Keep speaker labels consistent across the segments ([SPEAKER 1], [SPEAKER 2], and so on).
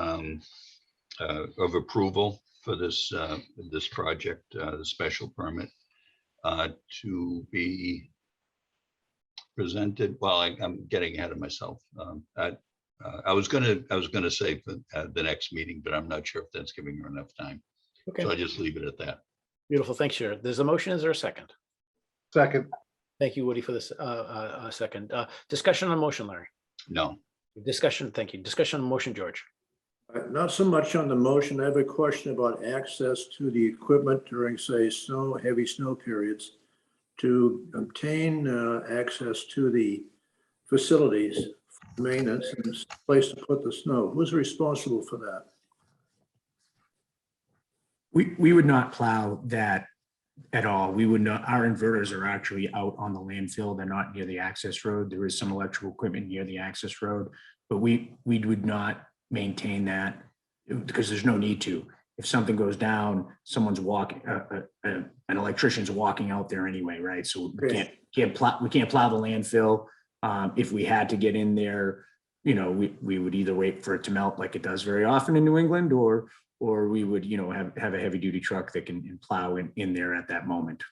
[SPEAKER 1] um, uh, of approval for this, uh, this project, uh, the special permit uh, to be presented, well, I- I'm getting ahead of myself. Um, I uh, I was gonna, I was gonna say for uh, the next meeting, but I'm not sure if that's giving her enough time. So I'll
[SPEAKER 2] Okay,
[SPEAKER 1] just leave it at that.
[SPEAKER 2] beautiful. Thanks, Sharon. There's a motion. Is there a second?
[SPEAKER 3] Second,
[SPEAKER 2] Thank you, Woody, for this, uh, uh, uh, second, uh, discussion on motion, Larry.
[SPEAKER 1] No,
[SPEAKER 2] Discussion, thank you. Discussion on motion, George.
[SPEAKER 4] Uh, Not so much on the motion. I have a question about access to the equipment during, say, snow, heavy snow periods. To obtain uh, access to the facilities, for maintenance, and s- place to put the snow. Who's responsible for that?
[SPEAKER 5] We, we would not plow that at all. We would not, our inverters are actually out on the landfill. They're not near the access road. There is some electrical equipment near the access road. But we, we would not maintain that because there's no need to. If something goes down, someone's walking, uh, uh, uh, an electrician's walking out there anyway, right? So we
[SPEAKER 4] Right.
[SPEAKER 5] can't, can't plow, we can't plow the landfill. Um, if we had to get in there, you know, we, we would either wait for it to melt like it does very often in New England or or we would, you know, have, have a heavy duty truck that can plow in, in there at that moment.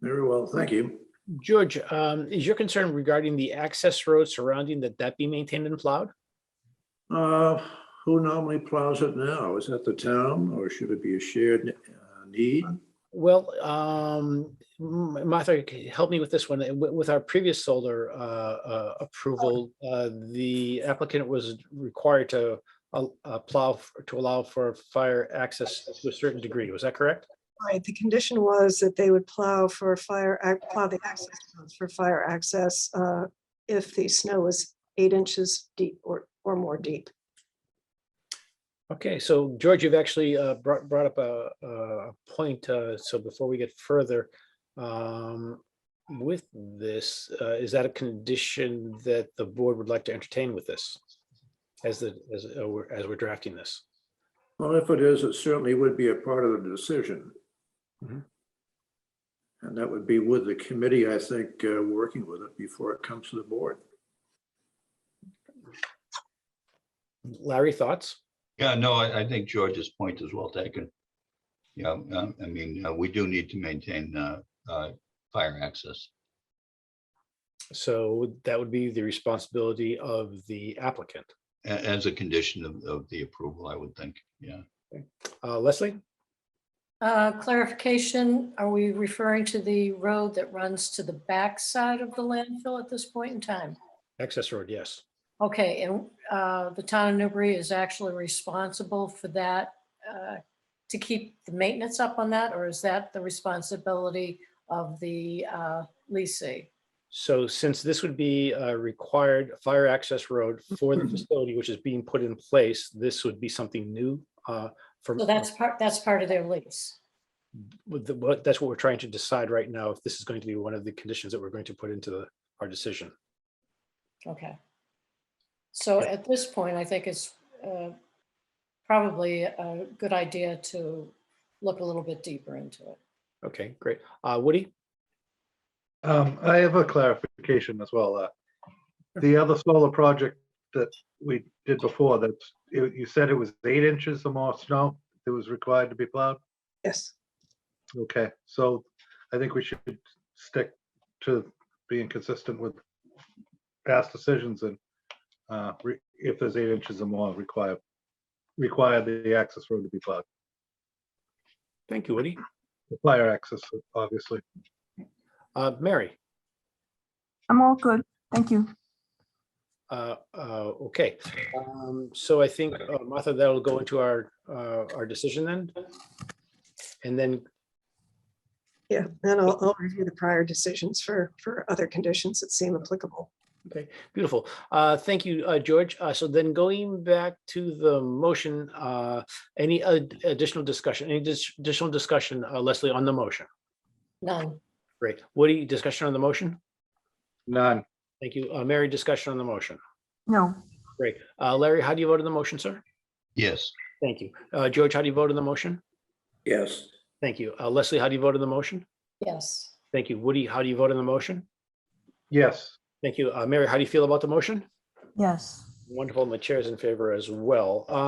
[SPEAKER 4] Very well, thank you.
[SPEAKER 2] George, um, is your concern regarding the access road surrounding that that be maintained and plowed?
[SPEAKER 4] Uh, Who normally plows it now? Is that the town or should it be a shared uh, need?
[SPEAKER 2] Well, um, M- Martha, c- help me with this one. Uh, wi- With our previous solar uh, uh, approval, uh, the applicant was required to uh, uh, plow f- to allow for fire access to a certain degree. Was that correct?
[SPEAKER 6] Right, the condition was that they would plow for fire, ac- plow the access roads for fire access uh, if the snow was eight inches deep or, or more deep.
[SPEAKER 2] Okay, so George, you've actually uh, brought, brought up a, a point, uh, so before we get further, um, with this, uh, is that a condition that the board would like to entertain with this? As the, as, uh, we're- as we're drafting this?
[SPEAKER 4] Well, if it is, it certainly would be a part of the decision.
[SPEAKER 3] Mm-hmm.
[SPEAKER 2] Mhm.
[SPEAKER 4] And that would be with the committee, I think, uh, working with it before it comes to the board.
[SPEAKER 2] Larry, thoughts?
[SPEAKER 1] yeah, no, I, I think George's point is well taken. Yeah, um, I mean, uh, we do need to maintain uh, uh, fire access.
[SPEAKER 2] So that would be the responsibility of the applicant.
[SPEAKER 1] a- as a condition of, of the approval, I would think, yeah.
[SPEAKER 2] Uh, Leslie?
[SPEAKER 7] Uh, Clarification, are we referring to the road that runs to the backside of the landfill at this point in time?
[SPEAKER 2] Access road, yes.
[SPEAKER 7] Okay, and uh, the town of Newbury is actually responsible for that, uh, to keep the maintenance up on that, or is that the responsibility of the uh, leasing?
[SPEAKER 2] So since this would be a required fire access road for the facility, which is being put in place, this would be something new uh, for.
[SPEAKER 7] So that's part, that's part of their lease.
[SPEAKER 2] with the- what- That's what we're trying to decide right now, if this is going to be one of the conditions that we're going to put into the- our decision.
[SPEAKER 7] Okay. So at this point, I think it's uh, probably a good idea to look a little bit deeper into it.
[SPEAKER 2] Okay, great. Uh, Woody?
[SPEAKER 3] um, I have a clarification as well. uh, The other solar project that we did before, that you you said it was eight inches or more snow that was required to be plowed?
[SPEAKER 6] Yes.
[SPEAKER 3] Okay, so I think we should stick to being consistent with past decisions and uh, re- if there's eight inches or more require, require the access road to be plowed,
[SPEAKER 2] Thank you, Woody.
[SPEAKER 3] The fire access, obviously.
[SPEAKER 2] Uh, Mary?
[SPEAKER 8] I'm all good. Thank you.
[SPEAKER 2] Uh, uh, Okay, Um, so I think, uh, Martha, that'll go into our, uh, our decision then. And then,
[SPEAKER 6] Yeah, and I'll, I'll review the prior decisions for, for other conditions that seem applicable.
[SPEAKER 2] okay, beautiful. Uh, Thank you, uh, George. Uh, So then going back to the motion, uh, any ad- additional discussion, any dis- additional discussion, uh, Leslie, on the motion?
[SPEAKER 7] None.
[SPEAKER 2] Great. Woody, discussion on the motion?
[SPEAKER 3] None.
[SPEAKER 2] Thank you. Uh, Mary, discussion on the motion?
[SPEAKER 8] No,
[SPEAKER 2] Great. Uh, Larry, how do you vote on the motion, sir?
[SPEAKER 1] Yes,
[SPEAKER 2] Thank you. Uh, George, how do you vote on the motion?
[SPEAKER 4] Yes.
[SPEAKER 2] Thank you. Uh, Leslie, how do you vote on the motion?
[SPEAKER 7] Yes.
[SPEAKER 2] Thank you. Woody, how do you vote on the motion?
[SPEAKER 3] Yes,
[SPEAKER 2] Thank you. Uh, Mary, how do you feel about the motion?
[SPEAKER 8] yes,
[SPEAKER 2] Wonderful, my chair is in favor as well. Uh,